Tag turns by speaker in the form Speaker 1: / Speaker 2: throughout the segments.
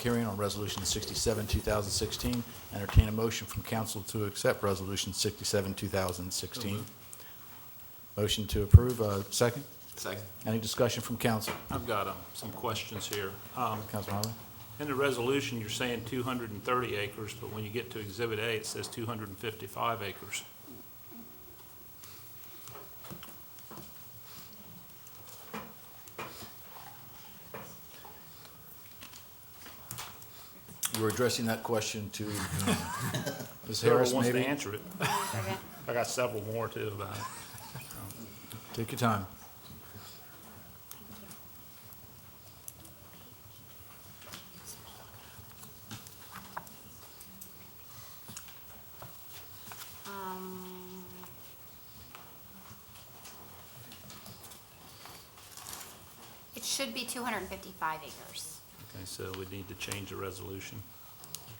Speaker 1: Hearing on Resolution 67, 2016. Entertain a motion from council to accept Resolution 67, 2016. Motion to approve, uh, second.
Speaker 2: Second.
Speaker 1: Any discussion from council?
Speaker 3: I've got um, some questions here. Um,
Speaker 1: Councilman Harley?
Speaker 3: In the resolution, you're saying 230 acres, but when you get to Exhibit A, it says 255 acres.
Speaker 1: You were addressing that question to Ms.
Speaker 3: uh, Whoever
Speaker 1: Harris,
Speaker 3: wants to
Speaker 1: maybe?
Speaker 3: answer it. I got several more, too, about it.
Speaker 1: Take your time.
Speaker 4: Um, It should be 255 acres.
Speaker 3: Okay, so we need to change the resolution.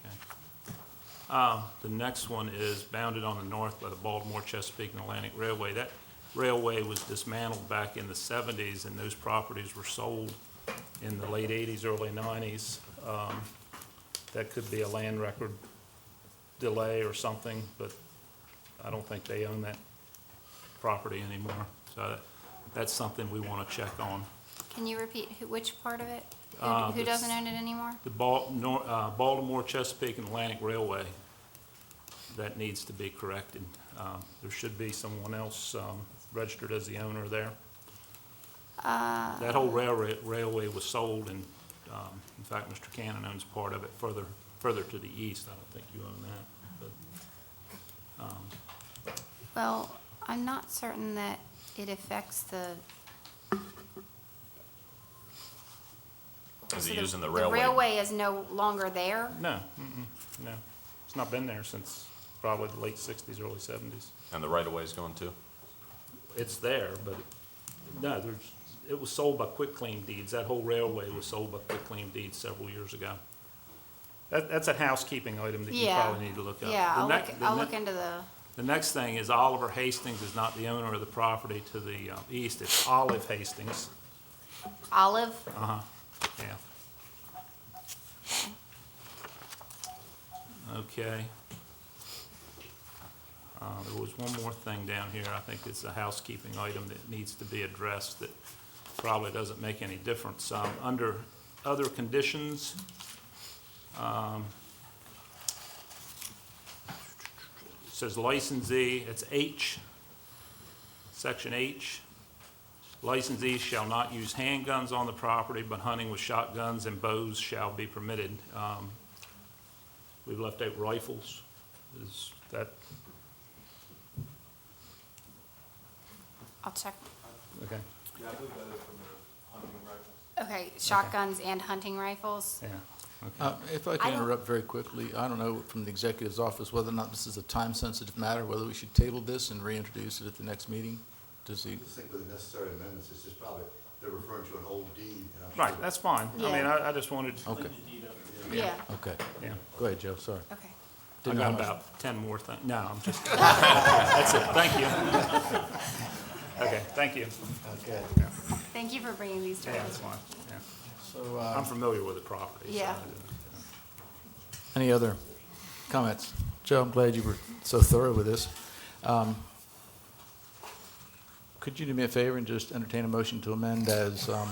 Speaker 3: Okay. Um, The next one is bounded on the north by the Baltimore, Chesapeake, and Atlantic Railway. That railway was dismantled back in the 70s, and those properties were sold in the late 80s, early 90s. Um, That could be a land record delay or something, but I don't think they own that property anymore. So that- that's something we want to check on.
Speaker 4: Can you repeat who- which part of it? Who-
Speaker 3: Uh,
Speaker 4: Who
Speaker 3: the s-
Speaker 4: doesn't own it anymore?
Speaker 3: The Bal- Nor- uh, Baltimore, Chesapeake, and Atlantic Railway, that needs to be corrected. Um, There should be someone else um, registered as the owner there. That whole railroad, railway was sold, and um, in fact, Mr. Cannon owns part of it further, further to the east. I don't think you own that,
Speaker 4: Well, I'm not certain that it affects the.
Speaker 2: Is
Speaker 4: so
Speaker 2: it using the
Speaker 4: The
Speaker 2: railway?
Speaker 4: railway is no longer there.
Speaker 3: but, no, mm-mm, no. It's not been there since probably the late 60s, early 70s.
Speaker 2: And the right-of-way is going too?
Speaker 3: it's there, but, no, there's, it was sold by quick claim deeds. That whole railway was sold by quick claim deeds several years ago. That, that's a housekeeping item that you
Speaker 4: Yeah.
Speaker 3: probably need to look up.
Speaker 4: Yeah,
Speaker 3: The
Speaker 4: I'll
Speaker 3: nec-
Speaker 4: look,
Speaker 3: the
Speaker 4: I'll
Speaker 3: ne-
Speaker 4: look into the,
Speaker 3: The next thing is Oliver Hastings is not the owner of the property to the uh, east. It's Olive Hastings,
Speaker 4: Olive,
Speaker 3: yeah. Okay. Uh, There was one more thing down here, I think it's a housekeeping item that needs to be addressed that probably doesn't make any difference. Um, Under other conditions, um, it says licensee, it's H, section H. Licensees shall not use handguns on the property, but hunting with shotguns and bows shall be permitted. Um, We've left out rifles. Is that,
Speaker 4: I'll check.
Speaker 3: okay,
Speaker 4: Okay, shotguns and hunting rifles.
Speaker 3: yeah. okay.
Speaker 1: Uh, If I
Speaker 4: I
Speaker 1: can
Speaker 4: don't-
Speaker 1: interrupt very quickly, I don't know from the executive's office whether or not this is a time-sensitive matter, whether we should table this and reintroduce it at the next meeting. Does the,
Speaker 5: I just think with the necessary amendments, it's just probably, they're referring to an old deed. and I'm sure
Speaker 3: Right, that's fine. I mean, I, I just wanted,
Speaker 1: okay,
Speaker 4: Yeah,
Speaker 1: okay.
Speaker 3: yeah.
Speaker 1: Go ahead, Joe, sorry.
Speaker 4: okay.
Speaker 3: I
Speaker 1: Didn't know how
Speaker 3: got
Speaker 1: much-
Speaker 3: about 10 more things. No, I'm just, that's it, thank you. Okay, thank you.
Speaker 4: Thank you for bringing these to
Speaker 3: Yeah, that's
Speaker 4: us.
Speaker 3: fine, yeah.
Speaker 1: So, uh,
Speaker 3: I'm familiar with the property. so-
Speaker 4: Yeah.
Speaker 1: Any other comments? Joe, I'm glad you were so thorough with this. Um, Could you do me a favor and just entertain a motion to amend as, um,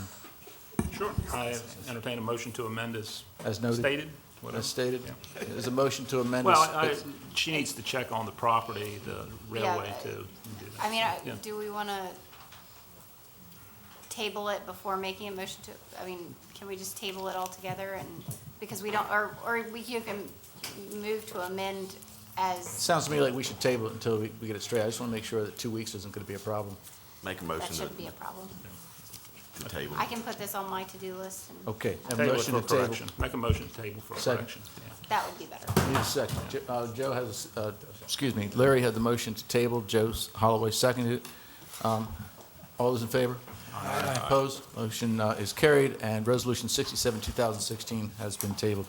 Speaker 3: Sure. I entertain a motion to amend as
Speaker 1: as noted?
Speaker 3: stated, whatever.
Speaker 1: As stated? Is a motion to amend?
Speaker 3: Well, I,
Speaker 1: as-
Speaker 3: she needs to check on the property, the railway
Speaker 4: but-
Speaker 3: to do that.
Speaker 4: I mean, I-
Speaker 3: Yeah.
Speaker 4: do we want to table it before making a motion to, I mean, can we just table it altogether and, because we don't, or, or we you can move to amend as,
Speaker 1: Sounds to me like we should table it until we we get it straight. I just want to make sure that two weeks isn't going to be a problem.
Speaker 6: Make a
Speaker 4: that
Speaker 6: motion
Speaker 4: shouldn't be
Speaker 6: to
Speaker 4: a problem.
Speaker 6: to table.
Speaker 4: I can put this on my to-do list and
Speaker 1: Okay. a
Speaker 3: Table it
Speaker 1: motion
Speaker 3: for
Speaker 1: to table.
Speaker 3: correction. Make a motion to table for
Speaker 1: Second.
Speaker 3: correction. yeah.
Speaker 4: that would be better.
Speaker 1: Need a second. Jo- uh, Joe has, a s- uh, excuse me, Larry had the motion to table, Joe Holloway seconded it. Um, All those in favor? Aye. Opposed? Motion uh, is carried, and Resolution 67, 2016 has been tabled.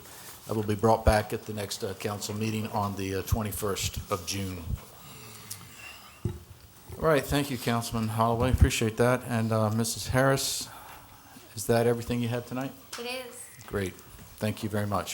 Speaker 1: That will be brought back at the next uh, council meeting on the uh, 21st of June. All right, thank you, Councilman Holloway, appreciate that. And uh, Mrs. Harris, is that everything you had tonight?
Speaker 4: It is,
Speaker 1: Great. Thank you very much.